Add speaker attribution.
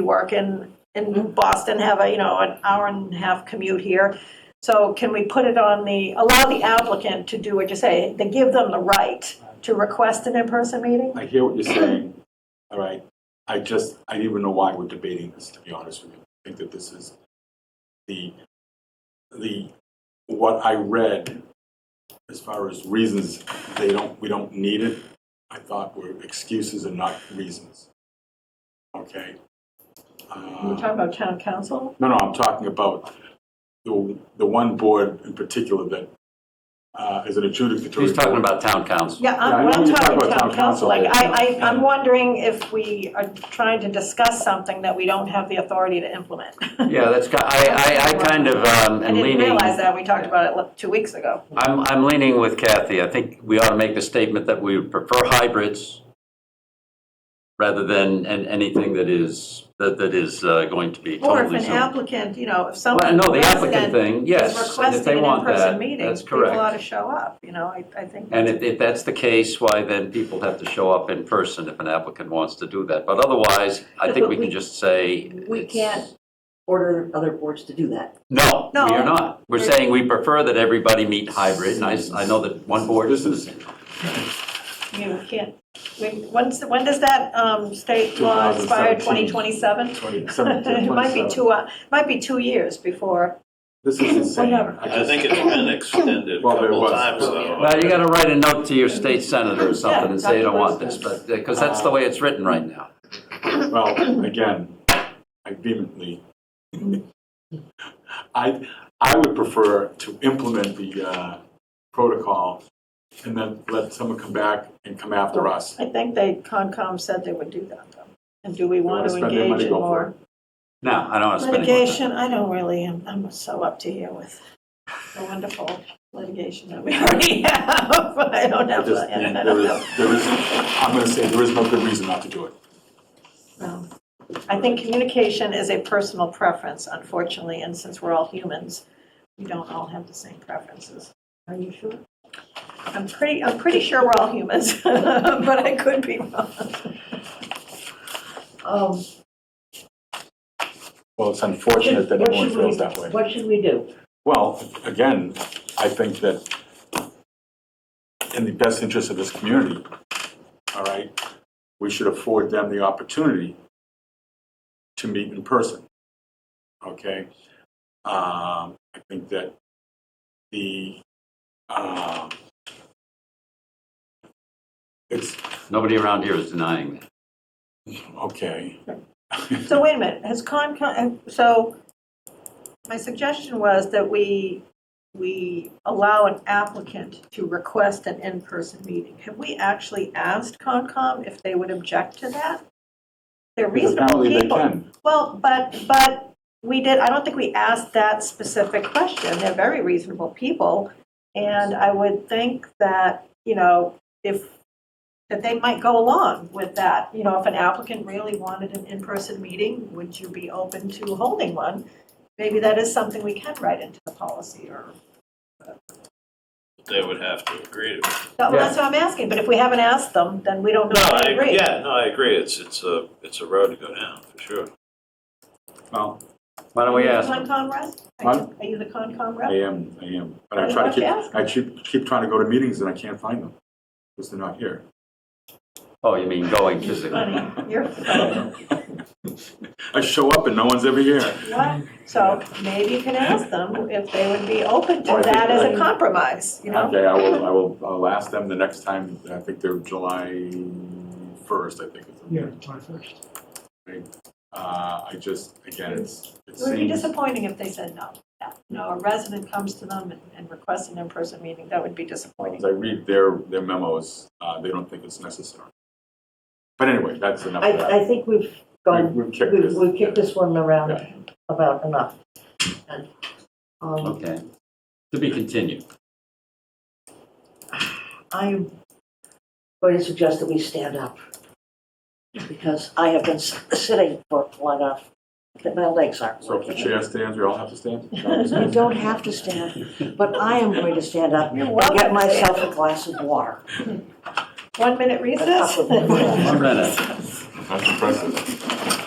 Speaker 1: work in, in Boston, have a, you know, an hour and a half commute here. So can we put it on the, allow the applicant to do what you say, to give them the right to request an in-person meeting?
Speaker 2: I hear what you're saying, all right? I just, I don't even know why we're debating this, to be honest with you. I think that this is the, the, what I read as far as reasons they don't, we don't need it, I thought were excuses and not reasons. Okay?
Speaker 1: You're
Speaker 2: Uh,
Speaker 1: talking about town council?
Speaker 2: No, no, I'm talking about the, the one board in particular that uh, is an adjudicatory.
Speaker 3: He's talking
Speaker 2: board.
Speaker 3: about town council.
Speaker 1: Yeah,
Speaker 2: Yeah, I
Speaker 1: I'm,
Speaker 2: know
Speaker 1: when I'm
Speaker 2: you're
Speaker 1: talking about town council, like, I, I,
Speaker 2: yeah.
Speaker 1: I'm wondering if we are trying to discuss something that we don't have the authority to implement.
Speaker 3: Yeah, that's, ki- I, I, I kind of um,
Speaker 1: I
Speaker 3: am
Speaker 1: didn't
Speaker 3: leaning,
Speaker 1: realize that, we talked about it like, two weeks ago.
Speaker 3: I'm, I'm leaning with Kathy. I think we ought to make the statement that we would prefer hybrids rather than an- anything that is, that that is uh, going to be
Speaker 1: Or if
Speaker 3: totally
Speaker 1: an
Speaker 3: Zoom.
Speaker 1: applicant, you know, if
Speaker 3: Well,
Speaker 1: someone.
Speaker 3: no, the applicant thing, yes. and if they
Speaker 1: requesting an
Speaker 3: want
Speaker 1: in-person
Speaker 3: that,
Speaker 1: meeting,
Speaker 3: That's
Speaker 1: People ought
Speaker 3: correct.
Speaker 1: to show up, you know, I, I think.
Speaker 3: And if, if that's the case, why then people have to show up in person if an applicant wants to do that. But otherwise, I
Speaker 4: But-
Speaker 3: think
Speaker 4: but
Speaker 3: we can
Speaker 4: we-
Speaker 3: just say.
Speaker 4: We
Speaker 3: it's-
Speaker 4: can't order other boards to do that.
Speaker 3: No, we
Speaker 1: No.
Speaker 3: are not. We're
Speaker 1: We're-
Speaker 3: saying we prefer that everybody meet hybrid, and I, s- I know that one board
Speaker 2: This
Speaker 3: is
Speaker 2: is
Speaker 1: You can't, when, when's, when does that, um, state law expire, twenty
Speaker 2: 2017.
Speaker 1: twenty-seven?
Speaker 2: 27,
Speaker 1: It might be
Speaker 2: 27.
Speaker 1: two, uh, might be two years before,
Speaker 2: This is insane.
Speaker 1: Whatever.
Speaker 5: I think it's been extended a
Speaker 2: Well, there
Speaker 5: couple
Speaker 2: was.
Speaker 5: of times, though.
Speaker 3: Well, you gotta write a note to your state senator or something and say you don't want this, but, because that's the way it's written right now.
Speaker 2: Well, again, I vehemently, I, I would prefer to implement the uh, protocol and then let someone come back and come after us.
Speaker 1: I think they, Concom said they would do that though. And do we
Speaker 2: They wanna
Speaker 1: want to
Speaker 2: spend their
Speaker 1: engage
Speaker 2: money,
Speaker 1: in
Speaker 2: go for
Speaker 1: more
Speaker 3: No, I don't want to spend any more time.
Speaker 1: litigation? I don't really, I'm, I'm so up to here with the wonderful litigation that we already have. I don't
Speaker 2: I
Speaker 1: have,
Speaker 2: just
Speaker 1: I don't
Speaker 2: think there
Speaker 1: know.
Speaker 2: is, there is, I'm going to say, there is no good reason not to do it.
Speaker 1: No. I think communication is a personal preference, unfortunately, and since we're all humans, we don't all have the same preferences. Are you sure? I'm pretty, I'm pretty sure we're all humans, but I could be wrong.
Speaker 4: Um,
Speaker 2: Well, it's unfortunate that
Speaker 4: what
Speaker 2: everyone
Speaker 4: should we,
Speaker 2: feels that way.
Speaker 4: what should we do?
Speaker 2: Well, again, I think that in the best interest of this community, all right, we should afford them the opportunity to meet in person. Okay? Um, I think that the, um, it's,
Speaker 3: Nobody around here is denying that.
Speaker 2: okay.
Speaker 1: So wait a minute, has Concom, so my suggestion was that we, we allow an applicant to request an in-person meeting. Have we actually asked Concom if they would object to that? They're reasonable
Speaker 2: Apparently they
Speaker 1: people.
Speaker 2: can.
Speaker 1: Well, but, but we did, I don't think we asked that specific question. They're very reasonable people. And I would think that, you know, if, that they might go along with that. You know, if an applicant really wanted an in-person meeting, would you be open to holding one? Maybe that is something we can write into the policy or,
Speaker 5: They would have to agree to it.
Speaker 1: No, that's what I'm asking. But if we haven't asked them, then we don't
Speaker 5: No,
Speaker 1: know if they
Speaker 5: I,
Speaker 1: agree.
Speaker 5: yeah, no, I agree. It's, it's a, it's a road to go down, for sure.
Speaker 2: Well,
Speaker 3: Why don't we ask?
Speaker 1: Are you
Speaker 3: them?
Speaker 1: the Concom rep? Are you- Are you the Concom
Speaker 2: I
Speaker 1: rep?
Speaker 2: am, I am. But I
Speaker 1: Why
Speaker 2: try to
Speaker 1: don't you
Speaker 2: keep,
Speaker 1: ask?
Speaker 2: I keep, keep trying to go to meetings and I can't find them because they're not here.
Speaker 3: Oh, you mean going physically?
Speaker 1: Funny, you're funny.
Speaker 2: I show up and no one's ever here.
Speaker 1: What? So maybe you can ask them if they would be open to
Speaker 2: Well, I think
Speaker 1: that as
Speaker 2: I-
Speaker 1: a compromise, you know?
Speaker 2: Okay, I will, I will, I'll ask them the next time, I think they're July first, I think. is the-
Speaker 6: Yeah, July first.
Speaker 2: Uh, I just, again, it's, it
Speaker 1: It would be
Speaker 2: seems,
Speaker 1: disappointing if they said no. Yeah. No, a resident comes to them and- and requests an in-person meeting, that would be disappointing.
Speaker 2: as I read their, their memos, uh, they don't think it's necessary. But anyway, that's enough
Speaker 4: I,
Speaker 2: of that.
Speaker 4: I think we've gone,
Speaker 2: We've- we've kicked
Speaker 4: we've,
Speaker 2: this.
Speaker 4: we've kicked this one
Speaker 2: Yeah.
Speaker 4: around about enough. And, um,
Speaker 3: Okay. To be continued.
Speaker 4: I'm going to suggest that we stand up because I have been s- sitting for long enough that my legs aren't
Speaker 2: So if the
Speaker 4: working.
Speaker 2: chair stands, we all have to stand?
Speaker 4: You don't have to stand, but I am going to stand up
Speaker 1: You're
Speaker 4: and
Speaker 1: welcome
Speaker 4: get
Speaker 1: to
Speaker 4: myself
Speaker 1: stand.
Speaker 4: a glass of water.
Speaker 1: One minute recess?
Speaker 4: That's
Speaker 3: One minute.
Speaker 2: That's impressive.